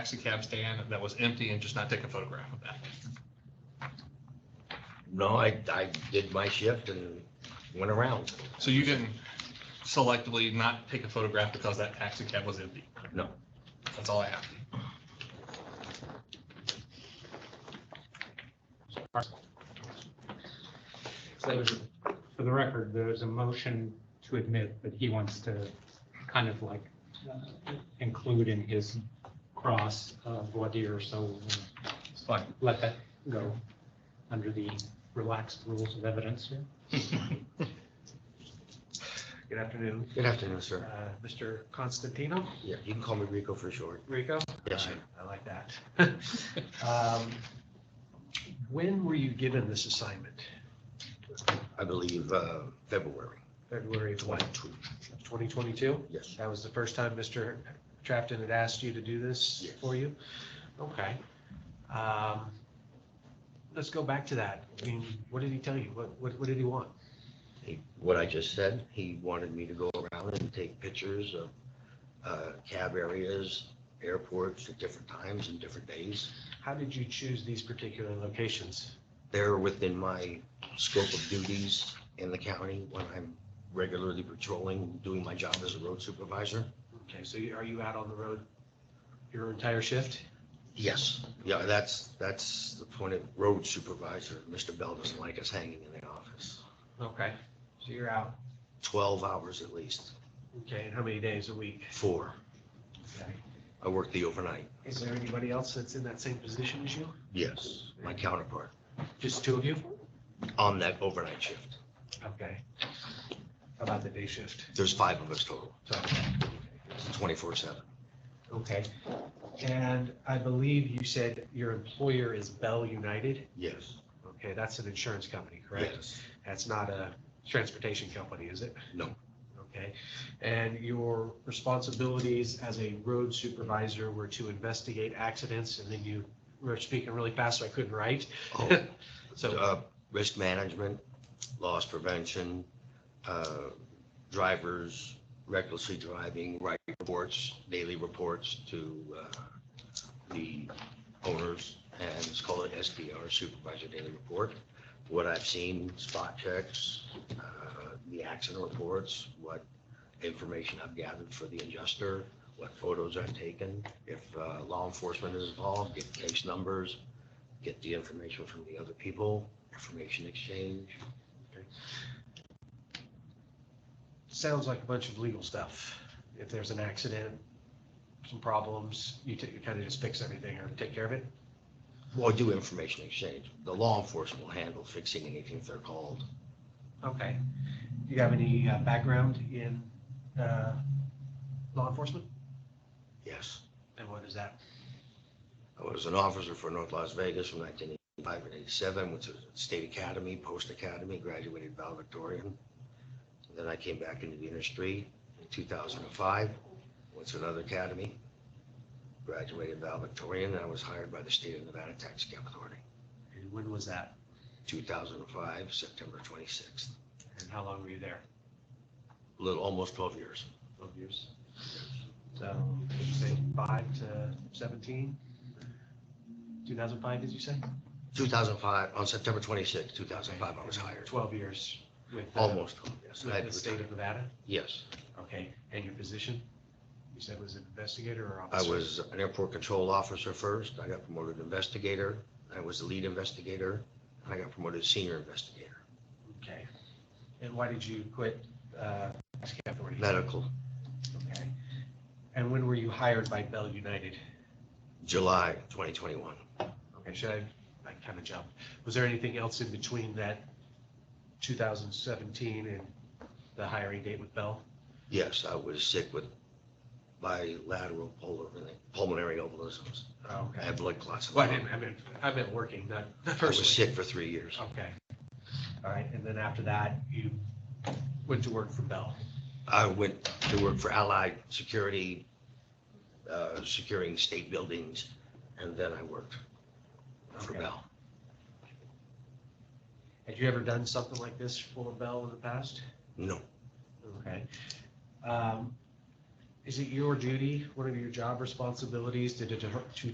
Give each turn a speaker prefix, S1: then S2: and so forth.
S1: taxi cab stand that was empty and just not take a photograph of that.
S2: No, I, I did my shift and went around.
S1: So you didn't selectively not take a photograph because that taxi cab was empty.
S2: No.
S1: That's all I have.
S3: So for the record, there's a motion to admit, but he wants to kind of like uh, include in his cross uh, voir dire, so uh,
S1: It's fine.
S3: let that go under the relaxed rules of evidence here.
S4: Good afternoon,
S2: Good afternoon,
S4: uh,
S2: sir.
S4: Mr. Constantino,
S2: Yeah, you can call me Rico for short.
S4: Rico.
S2: Yes, sir.
S4: I like that. Um, When were you given this assignment?
S2: I believe, uh, February
S4: February of what,
S2: twenty-two.
S4: 2022?
S2: Yes.
S4: That was the first time Mr. Trapton had asked you to do this
S2: Yes.
S4: for you? Okay. Um, Let's go back to that. I mean, what did he tell you? What, what what did he want?
S2: He- What I just said, he wanted me to go around and take pictures of, uh, cab areas, airports at different times and different days.
S4: How did you choose these particular locations?
S2: They're within my scope of duties in the county when I'm regularly patrolling, doing my job as a road supervisor.
S4: Okay, so you- are you out on the road your entire shift?
S2: Yes, yeah, that's, that's the point of road supervisor. Mr. Bell doesn't like us hanging in the office.
S4: Okay, so you're out.
S2: Twelve hours at least,
S4: Okay, and how many days a week?
S2: four.
S4: Okay.
S2: I work the overnight.
S4: Is there anybody else that's in that same position as you?
S2: Yes, my counterpart
S4: Just two of you?
S2: on that overnight shift.
S4: Okay. How About the day shift.
S2: There's five of us total,
S4: So,
S2: twenty-four seven.
S4: okay. And I believe you said your employer is Bell United.
S2: Yes.
S4: Okay, that's an insurance company, correct?
S2: Yes.
S4: That's not a transportation company, is it?
S2: No.
S4: Okay. And your responsibilities as a road supervisor were to investigate accidents and then you were speaking really fast, so I couldn't write.
S2: Oh,
S4: So.
S2: uh, risk management, loss prevention, uh, drivers recklessly driving, write reports, daily reports to uh, the owners, and it's called an SDR, Supervisor Daily Report. What I've seen, spot checks, uh, the accident reports, what information I've gathered for the adjuster, what photos I've taken, if uh, law enforcement is involved, get case numbers, get the information from the other people, information exchange.
S4: sounds like a bunch of legal stuff. If there's an accident, some problems, you ta- you kind of just fix everything or take care of it.
S2: Well, do information exchange. The law enforcement will handle fixing anything if they're called.
S4: Okay. Do you have any uh, background in uh, law enforcement?
S2: Yes.
S4: And what is that?
S2: I was an officer for North Las Vegas from 1985 and 87, went to State Academy, Post Academy, graduated valedictorian. Then I came back into the industry in 2005, went to another academy, graduated valedictorian, and I was hired by the state of Nevada Tax Cap Authority,
S4: And when was that?
S2: 2005, September 26th.
S4: And how long were you there?
S2: Little, almost 12 years.
S4: Twelve years. So, did you say five to 17? 2005, did you say?
S2: 2005, on September 26, 2005, I was hired.
S4: 12 years with. the-
S2: Almost, home, yes. I
S4: With
S2: had
S4: the
S2: to
S4: state
S2: retire.
S4: of Nevada?
S2: Yes,
S4: Okay, and your position? You said was an investigator or
S2: I
S4: officer?
S2: was an airport control officer first. I got promoted to investigator. I was the lead investigator. and I got promoted to senior investigator.
S4: Okay. And why did you quit uh, tax cap authority?
S2: Medical,
S4: Okay. And when were you hired by Bell United?
S2: July 2021.
S4: Okay, should I, I kind of jumped. Was there anything else in between that 2017 and the hiring date with Bell?
S2: Yes, I was sick with bilateral pulmonary- pulmonary embolisms. I
S4: Okay.
S2: had blood clots.
S4: Well, I didn't, I meant, I meant working, not not
S2: I was
S4: personally.
S2: sick for three years.
S4: Okay. All right, and then after that, you went to work for Bell?
S2: I went to work for Allied Security, uh, securing state buildings, and then I worked for
S4: Okay.
S2: Bell.
S4: Had you ever done something like this for Bell in the past?
S2: No,
S4: Okay. Um, Is it your duty, one of your job responsibilities to deter, to